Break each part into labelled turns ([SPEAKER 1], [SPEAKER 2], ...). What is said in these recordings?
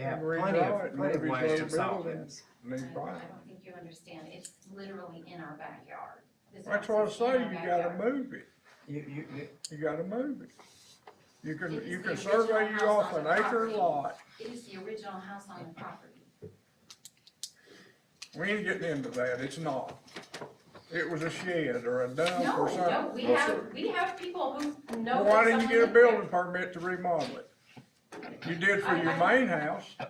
[SPEAKER 1] have
[SPEAKER 2] redraw
[SPEAKER 1] plenty
[SPEAKER 2] it
[SPEAKER 1] of,
[SPEAKER 2] and
[SPEAKER 1] plenty of
[SPEAKER 2] maybe
[SPEAKER 1] ways
[SPEAKER 2] go
[SPEAKER 1] to
[SPEAKER 2] to
[SPEAKER 1] solve
[SPEAKER 2] Middleton.
[SPEAKER 1] this.
[SPEAKER 2] New
[SPEAKER 3] I
[SPEAKER 2] Brian.
[SPEAKER 3] I don't think you understand, it's literally in our backyard. This
[SPEAKER 2] That's what I
[SPEAKER 3] house is in
[SPEAKER 2] say,
[SPEAKER 3] our
[SPEAKER 2] you gotta
[SPEAKER 3] backyard.
[SPEAKER 2] move it,
[SPEAKER 1] You, you, you-
[SPEAKER 2] you gotta move it. You can,
[SPEAKER 3] It is
[SPEAKER 2] you
[SPEAKER 3] the
[SPEAKER 2] can
[SPEAKER 3] original
[SPEAKER 2] survey you
[SPEAKER 3] house
[SPEAKER 2] off
[SPEAKER 3] on
[SPEAKER 2] an
[SPEAKER 3] the
[SPEAKER 2] acre
[SPEAKER 3] property.
[SPEAKER 2] lot,
[SPEAKER 3] It is the original house on the property.
[SPEAKER 2] we ain't getting into that, it's not. It was a shed or a dump
[SPEAKER 3] No,
[SPEAKER 2] or
[SPEAKER 3] no,
[SPEAKER 2] something.
[SPEAKER 3] we
[SPEAKER 4] No,
[SPEAKER 3] have,
[SPEAKER 4] sir.
[SPEAKER 3] we have people who know.
[SPEAKER 2] Well, Why
[SPEAKER 3] that
[SPEAKER 2] didn't you get a
[SPEAKER 3] someone lived there.
[SPEAKER 2] building permit to remodel it? You did for your main house,
[SPEAKER 3] I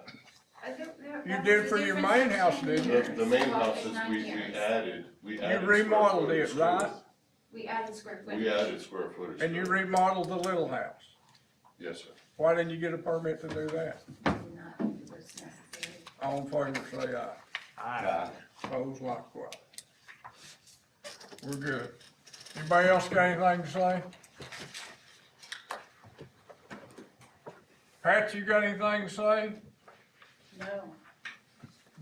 [SPEAKER 3] don't- there-
[SPEAKER 2] You
[SPEAKER 3] that
[SPEAKER 2] did
[SPEAKER 3] was a
[SPEAKER 2] for your
[SPEAKER 3] difference
[SPEAKER 2] main
[SPEAKER 3] of
[SPEAKER 2] house,
[SPEAKER 3] 10
[SPEAKER 2] didn't you?
[SPEAKER 3] years.
[SPEAKER 4] The, the main
[SPEAKER 3] Well,
[SPEAKER 4] house
[SPEAKER 3] it's
[SPEAKER 4] is
[SPEAKER 3] nine
[SPEAKER 4] we, we
[SPEAKER 3] years.
[SPEAKER 4] added, we added. square
[SPEAKER 2] remodeled it,
[SPEAKER 4] footage to
[SPEAKER 2] right?
[SPEAKER 3] We added square footage.
[SPEAKER 4] We added square footage.
[SPEAKER 2] and
[SPEAKER 4] to
[SPEAKER 2] you
[SPEAKER 4] it.
[SPEAKER 2] remodeled the little house,
[SPEAKER 4] Yes, sir.
[SPEAKER 2] why didn't you get a permit to do that?
[SPEAKER 3] Not that it was necessary.
[SPEAKER 2] All in favor, say aye.
[SPEAKER 1] I,
[SPEAKER 2] Opposed likewise. We're good. Anybody else got anything to say? Pat, you got anything to say?
[SPEAKER 3] No.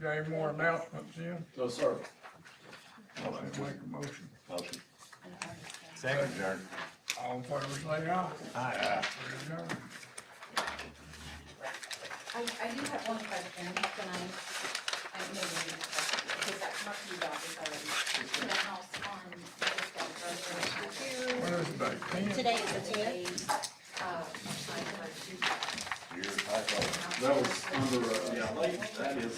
[SPEAKER 2] Got any more announcements, Jim?
[SPEAKER 4] No, sir.
[SPEAKER 2] I'll make a motion.
[SPEAKER 4] Motion.
[SPEAKER 1] second, Jerry.
[SPEAKER 2] All in favor, say aye.
[SPEAKER 1] Aye.
[SPEAKER 2] We're adjourned.
[SPEAKER 3] I, I do have one question, can I, I may be, because I talked to you about this already. The house on,
[SPEAKER 2] What is it, like ten?
[SPEAKER 5] Today is the tenth.
[SPEAKER 3] Uh, I like to-
[SPEAKER 4] You're tight. That was under, uh, yeah, like, that is, it's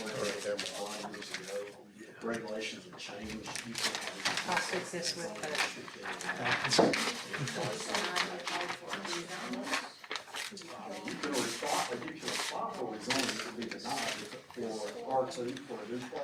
[SPEAKER 4] right there, five years ago. Regulations have changed.
[SPEAKER 5] I'll fix this with the
[SPEAKER 4] You can apply, you can apply for a zoning, it would be denied for R two, for a duplex.